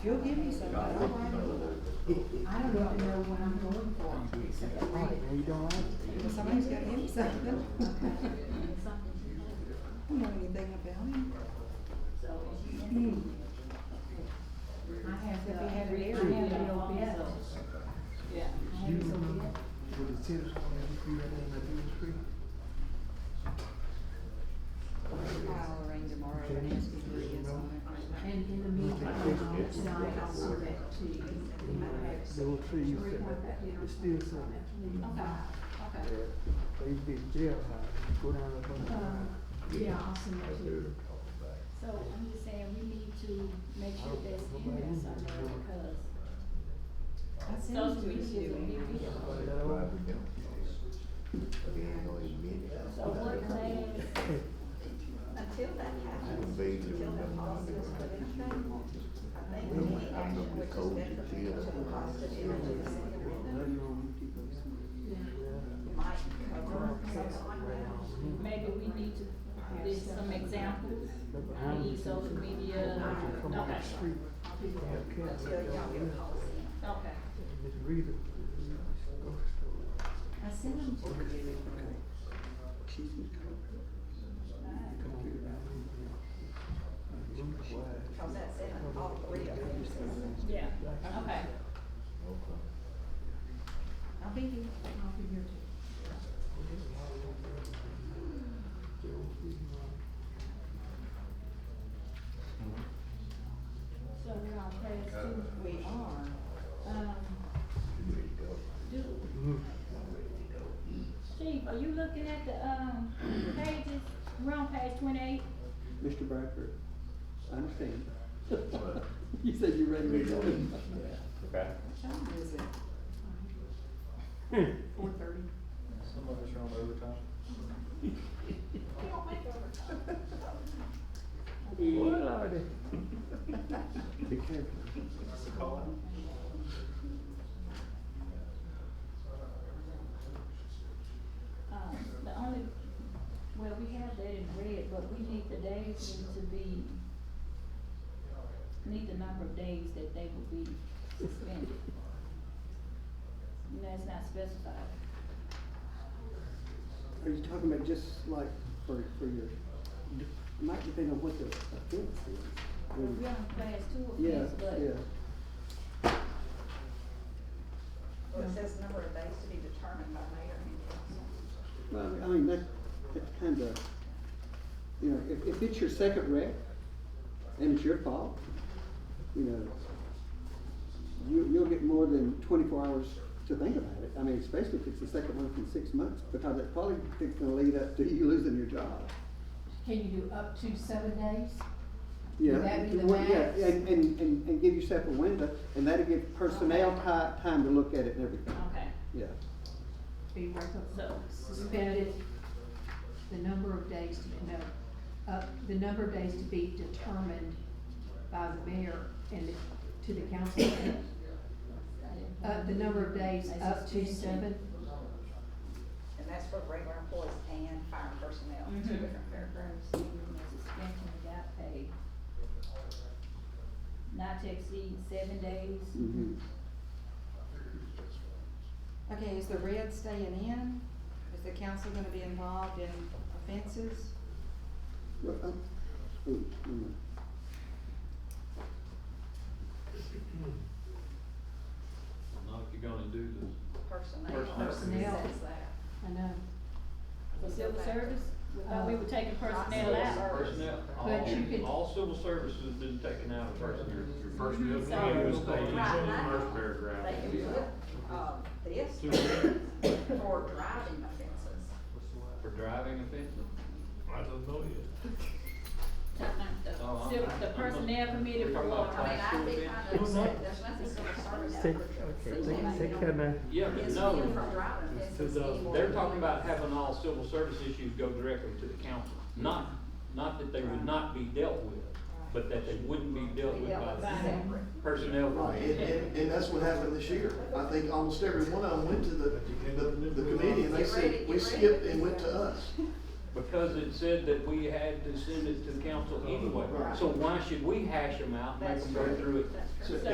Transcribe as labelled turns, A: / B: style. A: You'll give me some, but I don't I don't even know what I'm going for, except to read it.
B: you don't like it.
A: Well, Somebody's gotta give me something. I don't know anything about him. I have to be
C: Uh,
A: had it every year, no
B: You remember with the tennis court, that was free, that thing that was free?
A: I'll arrange tomorrow and ask you who he is on it.
D: And in the meantime, tonight I'll send that to you.
B: They were free, you said that, it's still something.
D: Okay,
B: They used to be jailhouse, go down there.
D: okay. Yeah, I'll send that to you.
C: So I'm just saying, we need to make sure that's in there somewhere because
A: I sent
C: social
A: it to
C: media is a
A: you.
C: big deal. So what class, until that happens, until that process for anything, I think we need action which is detrimental to the cost of energy that's in the building. Might cover something like that.
E: Maybe we need to, there's some examples, i.e. social media,
B: Come on the street, they have cats out
A: Until
B: there,
A: y'all get a policy.
E: okay.
B: and Miss Rita, grocery store.
A: I sent them to you.
B: Come on, get out of here. Look wide.
A: Cause that's in all three of them.
E: Yeah, okay.
A: I'll be here.
D: I'll be here too.
C: so we're on class two,
A: We are.
C: um, do, Chief, are you looking at the, um, pages, we're on page twenty-eight?
F: Mr. Bradford, I understand. You said you read me.
G: Okay.
A: What time is it? Four thirty.
G: Some of us are on overtime.
B: What are they?
F: Be careful.
G: What's the call?
C: Um, the only, well, we have that in red, but we need the days need to be, need the number of days that they will be suspended. You know, it's not specified.
F: Are you talking about just like for, for your, it might depend on what the offense is.
C: Well,
F: When-
C: We're on class two
F: Mm. Yeah,
C: offense, but
F: yeah.
A: Well, it says number of days to be determined by mayor and council.
F: Well, I mean- I mean, that, that's kind of, you know, if, if it's your second wreck and it's your fault, you know, you, you'll get more than twenty-four hours to think about it. I mean, especially if it's the second one from six months, because it probably is gonna lead up to you losing your job.
D: Can you do up to seven days?
F: Yeah,
D: Would that be the
F: well, yeah,
D: max?
F: and, and, and, and give yourself a window, and that'll give personnel ti- time to look at it and everything,
E: Okay,
F: yeah.
D: Be recon-
E: so,
D: suspended, the number of days to, no, uh, the number of days to be determined by the mayor and to the council. Uh, the number of days up to seven,
A: And that's for regular employees and fire personnel,
C: Mm-hmm.
A: two
E: Mhm.
A: different paragraphs.
C: receiving a suspension without pay. Not to exceed seven days.
F: Mm-hmm.
A: Okay, is the red staying in? Is the council gonna be involved in offenses?
F: Well, um, ooh, never mind.
G: Not if you're gonna do this.
A: Personnel.
D: Personnel.
A: It says that.
D: I know,
E: for civil service, we thought we were taking personnel
A: Uh, Civil
E: out.
A: service.
G: Personnel,
D: But you could-
G: all, all civil services have been taken out of first year.
H: First bill, we
E: So-
H: have to stay
A: Right
H: in the
A: now,
H: first
A: They
H: paragraph.
A: can put, uh, this
G: Two.
A: for driving offenses.
G: For driving offenses.
H: I don't know yet.
G: Oh, I'm-
E: Civil- The personnel committee for what?
A: I mean, I'd be kind of upset, there's nothing civil service. that
B: Take,
A: would
B: okay,
A: see
B: take,
A: that, you
B: take
A: know,
B: care now.
G: Yeah, but
A: It's
G: no,
A: been from driving offenses.
H: uh,
A: anymore.
G: they're talking about having all civil service issues go directly to the council. Not, not that they would not be dealt with, but that they wouldn't be dealt with by
A: Yeah,
G: the
A: but-
G: personnel.
I: Right, and, and, and that's what happened this year. I think almost every one of them went to the, the, the committee and they said, we skipped and went to us.
G: because it said that we had to send it to council anyway.
I: Right.
G: So why should we hash them out, make
C: That's
G: them go
C: true.
G: through it
C: That's true.
I: So-